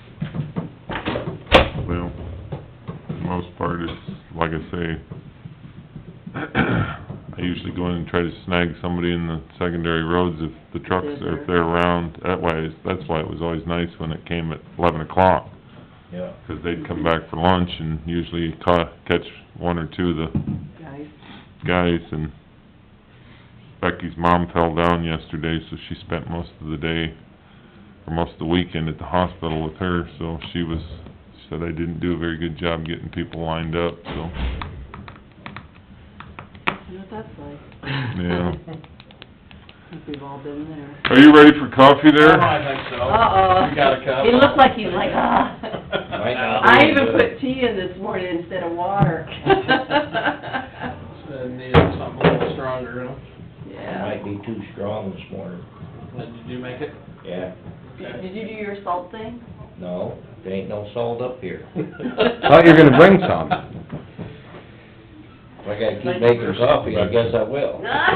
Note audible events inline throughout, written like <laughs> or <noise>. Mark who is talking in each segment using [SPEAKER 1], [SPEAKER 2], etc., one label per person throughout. [SPEAKER 1] <clears throat> to go in and try to snag somebody in the secondary roads if the trucks, or if they're around. That way, that's why it was always nice when it came at eleven o'clock,
[SPEAKER 2] yeah.
[SPEAKER 1] 'cause they'd come back for lunch and usually ca- catch one or two of the
[SPEAKER 3] guys.
[SPEAKER 1] guys, and Becky's mom fell down yesterday, so she spent most of the day, or most of the weekend at the hospital with her, so she was, she said I didn't do a very good job getting people lined up, so,
[SPEAKER 3] I know what that's like. <laughs>
[SPEAKER 1] yeah.
[SPEAKER 3] I think we've all been there.
[SPEAKER 1] Are you ready for coffee there?
[SPEAKER 2] Oh, I think so.
[SPEAKER 3] Uh-oh.
[SPEAKER 2] We got a cup.
[SPEAKER 3] He looked like he was like,
[SPEAKER 4] <laughs>
[SPEAKER 3] ah.
[SPEAKER 2] No.
[SPEAKER 3] I even put tea in this morning instead of water. <laughs>
[SPEAKER 5] So needed something a little stronger, huh?
[SPEAKER 3] Yeah.
[SPEAKER 2] Might be too strong this morning,
[SPEAKER 5] Did you make it?
[SPEAKER 2] yeah.
[SPEAKER 3] Did did you do your salt
[SPEAKER 2] <laughs>
[SPEAKER 3] thing?
[SPEAKER 2] No, there ain't no salt
[SPEAKER 5] <laughs>
[SPEAKER 2] up here.
[SPEAKER 4] Thought you were gonna bring some.
[SPEAKER 3] <laughs>
[SPEAKER 2] If I gotta keep making coffee, I guess I will.
[SPEAKER 3] Yeah,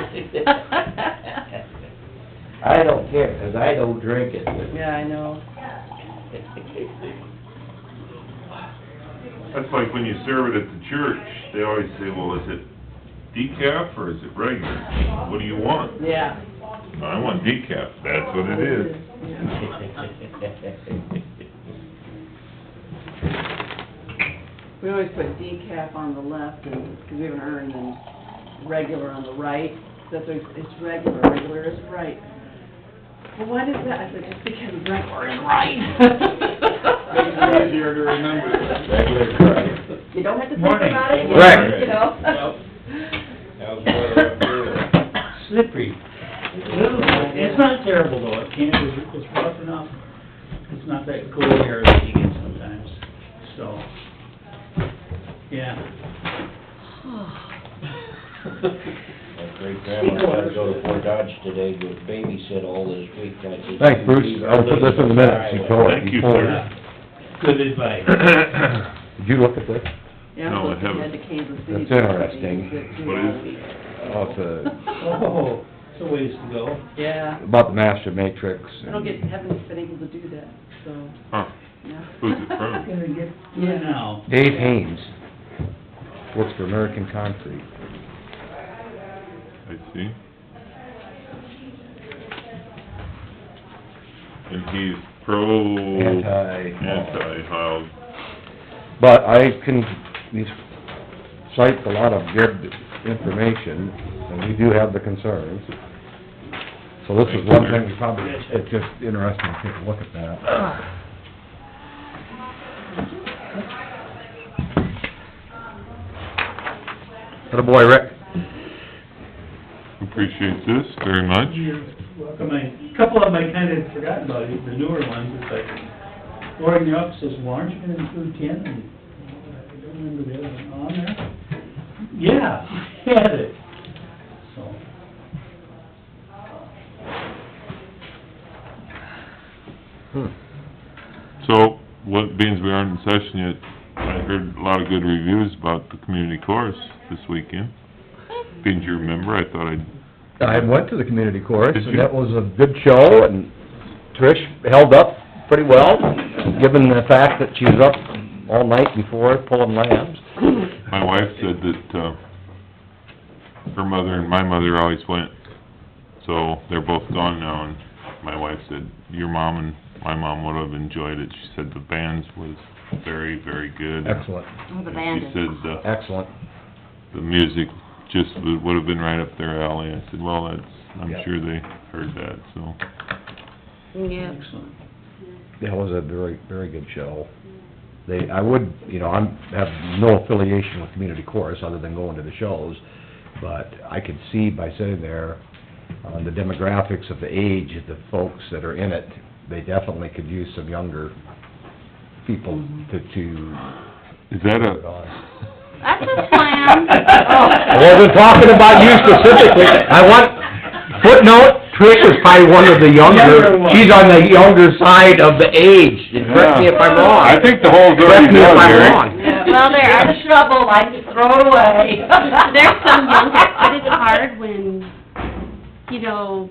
[SPEAKER 2] I don't care, 'cause I don't drink it.
[SPEAKER 3] I know.
[SPEAKER 1] That's like when you serve it at the church, they always say, well, is it decaf or is it regular? What do you want?
[SPEAKER 3] Yeah.
[SPEAKER 1] I want decaf, that's what
[SPEAKER 3] Yeah. We always put decaf on the left and, because we have an urn and regular on the right. That's always, it's regular, regular is right. Well, why does that? I said, just because regular is right.
[SPEAKER 5] Makes it easier to remember.
[SPEAKER 2] Regular is right.
[SPEAKER 3] You don't have to think
[SPEAKER 1] Morning.
[SPEAKER 3] about it,
[SPEAKER 4] Right.
[SPEAKER 3] you know?
[SPEAKER 5] Yep.
[SPEAKER 2] How's the weather up there?
[SPEAKER 6] slippery. It's not terrible though, it can, it's, it's rough enough. It's not that cool air that you get sometimes, so, yeah.
[SPEAKER 2] My great grandma had to go to Fort Dodge today to babysit all this week. I said,
[SPEAKER 4] Thanks, Bruce. I'll put this in the minutes before.
[SPEAKER 1] Thank you, sir.
[SPEAKER 6] Oh, Good advice.
[SPEAKER 1] <clears throat> it is.
[SPEAKER 4] Did you look at this?
[SPEAKER 3] Yeah,
[SPEAKER 1] No, I
[SPEAKER 3] I'm looking
[SPEAKER 1] haven't.
[SPEAKER 3] at the Kansas City.
[SPEAKER 4] That's interesting.
[SPEAKER 1] What is
[SPEAKER 4] Oh, it's
[SPEAKER 6] Oh, it's a ways to go.
[SPEAKER 3] Yeah,
[SPEAKER 4] uh, about the master matrix.
[SPEAKER 3] I don't get, haven't been able to do that, so,
[SPEAKER 1] Huh,
[SPEAKER 3] yeah.
[SPEAKER 1] Who's
[SPEAKER 3] <laughs>
[SPEAKER 1] it from?
[SPEAKER 6] Gonna get
[SPEAKER 3] Yeah.
[SPEAKER 6] through now.
[SPEAKER 4] Dave Haynes, works for American Concrete.
[SPEAKER 1] I see. And he's pro...
[SPEAKER 4] Anti-
[SPEAKER 1] Anti-hog.
[SPEAKER 4] But I can, he cites a lot of good information, and we do have the concerns. So this is one thing we probably, it's just interesting to take a look at that. Atta boy, Rick.
[SPEAKER 1] Appreciate this very much.
[SPEAKER 6] You're welcome. I- Couple of them I kinda forgot about, the newer ones, it's like, Loring Yup says, well, aren't you gonna include Ken? And I don't remember the other one on there. Yeah, <laughs> he had it, so.
[SPEAKER 1] So, what, being as we aren't in session yet, I heard a lot of good reviews about the community chorus this weekend. Being you remember, I thought I'd...
[SPEAKER 4] I went to the community chorus,
[SPEAKER 1] Did
[SPEAKER 4] and
[SPEAKER 1] you?
[SPEAKER 4] that was a good show, and Trish held up pretty well, given the fact that she was up all night before pulling lambs.
[SPEAKER 1] My wife said that, uh, her mother and my mother always went, so they're both gone now, and my wife said, your mom and my mom would have enjoyed it. She said the bands was very, very good.
[SPEAKER 4] Excellent,
[SPEAKER 3] Oh, The
[SPEAKER 1] And
[SPEAKER 3] band
[SPEAKER 1] She
[SPEAKER 3] is.
[SPEAKER 1] said, uh,
[SPEAKER 4] excellent.
[SPEAKER 1] the music just would would have been right up their alley. I said, well, that's, I'm
[SPEAKER 4] Yeah.
[SPEAKER 1] sure they heard that, so.
[SPEAKER 3] Yeah.
[SPEAKER 6] Excellent.
[SPEAKER 4] That was a very, very good show. They, I would, you know, I'm, have no affiliation with community chorus, other than going to the shows, but I could see by sitting there, on the demographics of the age of the folks that are in it, they definitely could use some younger people to, to
[SPEAKER 1] Is that
[SPEAKER 4] put it
[SPEAKER 1] a,
[SPEAKER 4] on.
[SPEAKER 3] That's a plan. Oh.
[SPEAKER 4] I wasn't talking about you specifically. I want, footnote, Trish is probably one of the younger,
[SPEAKER 6] Younger one.
[SPEAKER 4] she's on the younger side of the age, and correct me if I'm wrong.
[SPEAKER 1] I think the hole's
[SPEAKER 4] Correct
[SPEAKER 1] already
[SPEAKER 4] me if
[SPEAKER 1] done,
[SPEAKER 4] I'm
[SPEAKER 1] Eric.
[SPEAKER 4] wrong.
[SPEAKER 3] Well, they're out of trouble, I just throw <laughs>
[SPEAKER 7] <laughs>
[SPEAKER 3] it away.
[SPEAKER 7] There's some younger, but it's hard when, you know,